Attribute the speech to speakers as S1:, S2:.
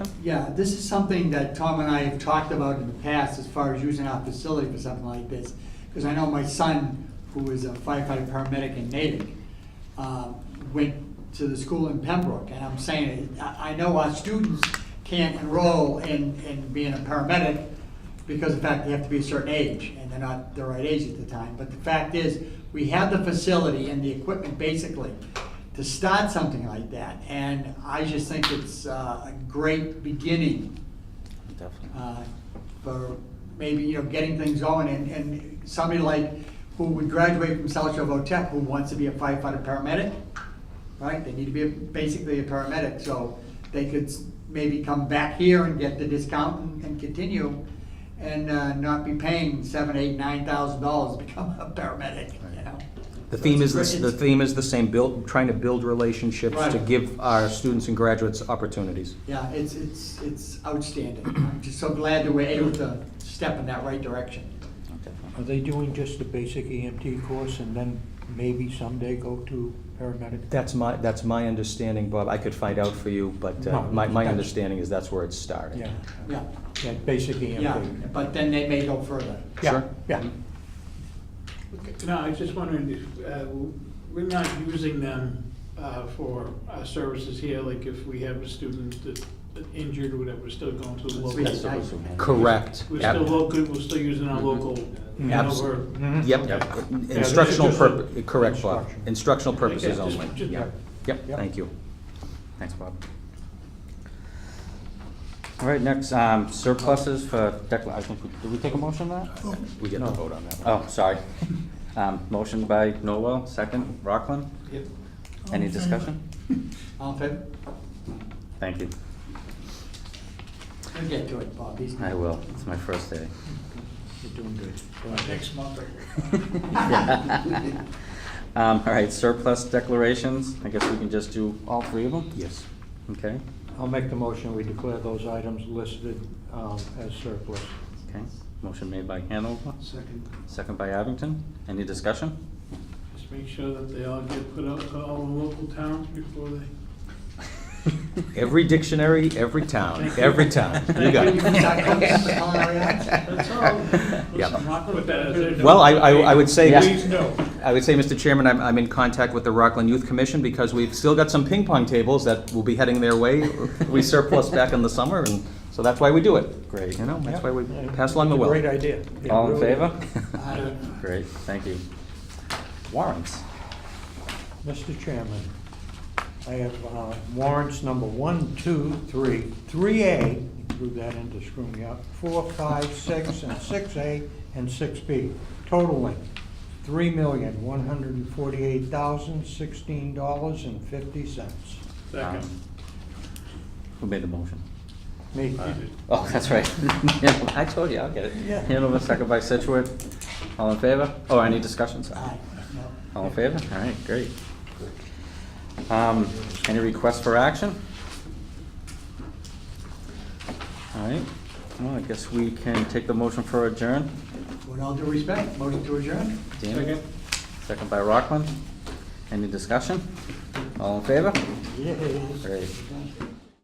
S1: Yeah, this is something that Tom and I have talked about in the past as far as using our facility for something like this. Because I know my son, who is a firefighter paramedic in Natick, uh, went to the school in Pembroke. And I'm saying, I I know our students can't enroll in, in being a paramedic because of the fact they have to be a certain age, and they're not the right age at the time. But the fact is, we have the facility and the equipment basically to start something like that. And I just think it's uh, a great beginning
S2: Definitely.
S1: uh, for maybe, you know, getting things going. And, and somebody like, who would graduate from South Shore Tech, who wants to be a firefighter paramedic, right? They need to be a- basically a paramedic, so they could s- maybe come back here and get the discount and- and continue and uh, not be paying seven, eight, nine thousand dollars to become a paramedic, you know?
S2: The
S1: So
S2: theme is,
S1: it's
S2: the s-
S1: great.
S2: the theme is the same, build, trying to build relationships to
S1: Right.
S2: give our students and graduates opportunities.
S1: Yeah, it's, it's, it's outstanding. I'm just so glad that we're able to step in that right direction.
S2: Oh,
S3: Are they doing just the basic EMT course and then maybe someday go to paramedic?
S2: That's my, that's my understanding, Bob. I could find out for you, but uh,
S3: No,
S2: my, my
S3: that's-
S2: understanding is that's where it started.
S3: Yeah,
S1: Yeah,
S3: yeah, basic EMT.
S1: yeah, but then they may go further.
S3: Yeah,
S2: Sure. Mm-hmm.
S3: yeah.
S4: Okay, No, I was just wondering, if, uh, we're not using them uh, for our services here, like if we have a student that that injured, or whatever, we're still going to the
S1: We-
S4: local.
S1: Yes.
S2: So it's- Correct.
S4: We're
S2: Ab-
S4: still local, we're still using our local,
S2: Abs-
S4: Hanover.
S3: Mhm.
S2: Mm-hmm. Yep, Mm-hmm.
S4: Okay.
S2: instructional
S3: Yeah, this is
S2: purpo-
S3: just a-
S2: correct, Bob.
S3: instruction.
S2: Instructional purposes
S4: Yeah, just-
S2: only.
S4: just-
S2: Yeah. Yep,
S3: Yep.
S2: thank you. Thanks, Bob. All right, next, um, surpluses for decla, I think, we- did we take a motion on that? We get to vote on that. Oh, sorry. Um, Motion by Noel, second, Rockland.
S4: Yep.
S2: Any discussion?
S1: All in favor?
S2: Thank you.
S1: We'll get to it, Bob. He's-
S2: I will. It's my first day.
S3: You're doing good. Go ahead.
S4: Next month.
S2: Um, All right, surplus declarations. I guess we can just do all three of them?
S5: Yes.
S2: Okay,
S3: I'll make the motion, we declare those items listed um, as surplus.
S2: okay. Motion made by Hanover,
S4: Second.
S2: second by Abington. Any discussion?
S4: Just make sure that they all get put out to all the local towns before they.
S2: Every dictionary, every town, every town. You got
S4: That's all.
S2: it.
S4: Listen,
S2: Yeah.
S4: I'll put that as a-
S2: Well, I, I I would say,
S4: Please, no.
S2: I would say, Mr. Chairman, I'm, I'm in contact with the Rockland Youth Commission because we've still got some ping pong tables that will be heading their way. We surplus back in the summer, and so that's why we do it. Great. You know, that's why we
S3: Yeah.
S2: pass along the
S3: It's a
S2: wealth.
S3: Great idea. Yeah,
S2: All in
S3: really.
S2: favor?
S1: Aye.
S2: Great, thank you. Warrants.
S3: Mr. Chairman, I have uh, warrants number one, two, three, three A, threw that in to screw me up, four, five, six, and six A, and six B, totaling three million, one hundred and forty-eight thousand, sixteen dollars and fifty cents.
S4: Second.
S2: Um, Who made the motion?
S3: Me.
S2: Oh, that's right. I told you, I'll get it.
S3: Yeah.
S2: Hanover, second by Situate. All in favor? Oh, any discussions?
S1: Aye, no.
S2: All in favor? All right, great. Um, Any requests for action? All right, well, I guess we can take the motion for adjourn.
S1: With all due respect, motion to adjourn?
S2: Dan? Second by Rockland. Any discussion? All in favor?
S3: Yes.
S2: Great.